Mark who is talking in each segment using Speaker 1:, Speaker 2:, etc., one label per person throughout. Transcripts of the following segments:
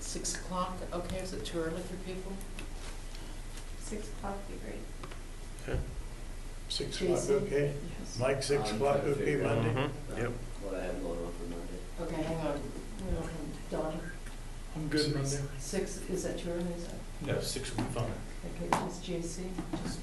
Speaker 1: Six o'clock, okay, is it too early for people?
Speaker 2: Six o'clock would be great.
Speaker 3: Six o'clock, okay? Mike, six
Speaker 4: I'm
Speaker 3: o'clock,
Speaker 4: trying to
Speaker 3: okay,
Speaker 4: figure out.
Speaker 3: Monday?
Speaker 4: Yep. What I have going on for Monday.
Speaker 1: Okay, hang on, We don't have Dawn,
Speaker 3: I'm good Monday.
Speaker 1: six, is that too early, is that,
Speaker 5: No, six would be fine.
Speaker 1: okay, is JC? Just-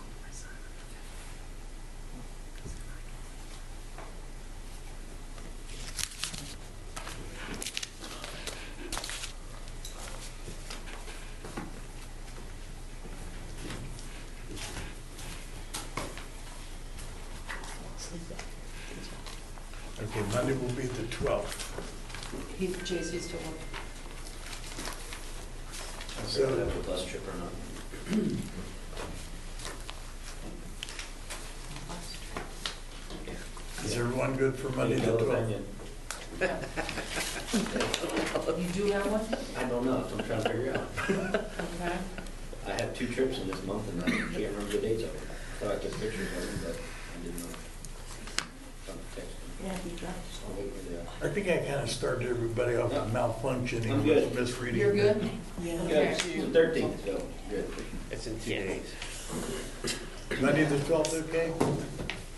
Speaker 3: Okay, Monday will be the twelfth.
Speaker 1: He, JC's still working.
Speaker 4: I'll
Speaker 3: So-
Speaker 4: figure out if the bus trip or not.
Speaker 3: Is everyone good for Monday the twelfth?
Speaker 1: Oh, You do have one?
Speaker 4: I don't know, I'm trying to figure out.
Speaker 1: Okay.
Speaker 4: I have two trips in this month and I can't remember the dates of them. Thought I took pictures of them, but I didn't know. Trying to text them.
Speaker 2: Yeah, be dropped.
Speaker 4: Just I'll wait for uh, that.
Speaker 3: I think I kind of started everybody off with malfunctioning,
Speaker 4: I'm good.
Speaker 3: with misreading.
Speaker 1: You're good?
Speaker 2: Yeah.
Speaker 1: Okay.
Speaker 4: Good, thirteen, so, good.
Speaker 5: It's in two days.
Speaker 3: Monday the twelfth, okay?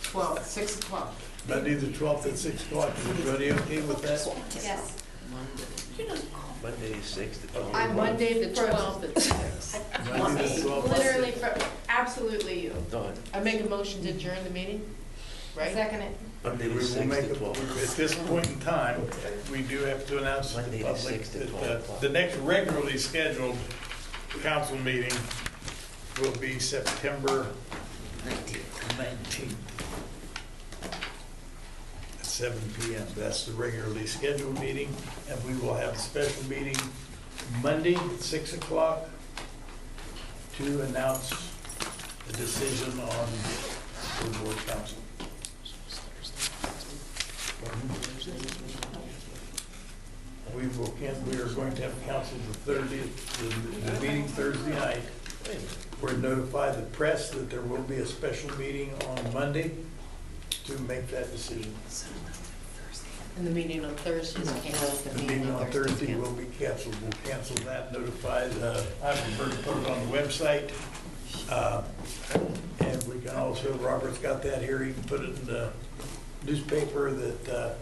Speaker 1: Twelve, six o'clock.
Speaker 3: Monday the twelfth at six o'clock, is everybody okay with that?
Speaker 2: Yes.
Speaker 5: Monday is six to twelve.
Speaker 2: I'm
Speaker 1: Monday, the
Speaker 2: For-
Speaker 1: twelfth at six.
Speaker 3: Monday the twelfth,
Speaker 2: Literally, for- absolutely you.
Speaker 5: Done.
Speaker 1: I make a motion to adjourn the meeting, right?
Speaker 2: Second it.
Speaker 3: okay, we will
Speaker 5: Six
Speaker 3: make,
Speaker 5: to
Speaker 3: a-
Speaker 5: twelve.
Speaker 3: at this point in time, we do have to announce to
Speaker 5: Monday
Speaker 3: the
Speaker 5: the
Speaker 3: public
Speaker 5: six to
Speaker 3: that
Speaker 5: 12
Speaker 3: uh,
Speaker 5: o'clock.
Speaker 3: the next regularly scheduled council meeting will be September nineteenth. At seven P M. That's the regularly scheduled meeting, and we will have a special meeting Monday at six o'clock to announce the decision on the board council. We will, can- we are going to have council the thirtieth, the meeting Thursday night. We're notify the press that there will be a special meeting on Monday to make that decision.
Speaker 1: And the meeting on Thursday is canceled.
Speaker 3: The meeting on Thursday will be canceled. We'll cancel that, notify the, I prefer to put it on the website. Uh, And we can also, Robert's got that here, he can put it in the newspaper that uh,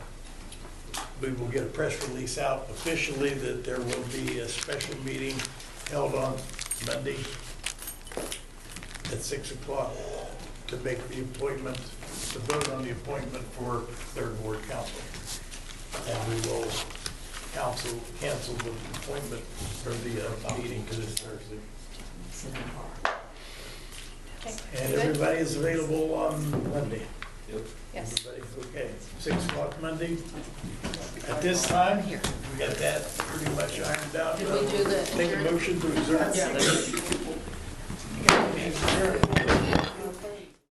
Speaker 3: we will get a press release out officially that there will be a special meeting held on Monday at 6 o'clock to make the appointment, to vote on the appointment for third ward council. And we will council cancel the appointment for the uh, meeting to this Thursday. And everybody is available on Monday.
Speaker 4: Yep.
Speaker 2: Yes.
Speaker 3: Everybody's okay. Six o'clock Monday. At this time,
Speaker 1: Here.
Speaker 3: we got that pretty much ironed out.
Speaker 1: Did we do the
Speaker 3: Make a
Speaker 1: adjourn-
Speaker 3: motion to adjourn.
Speaker 1: Yeah.
Speaker 3: Adjourn.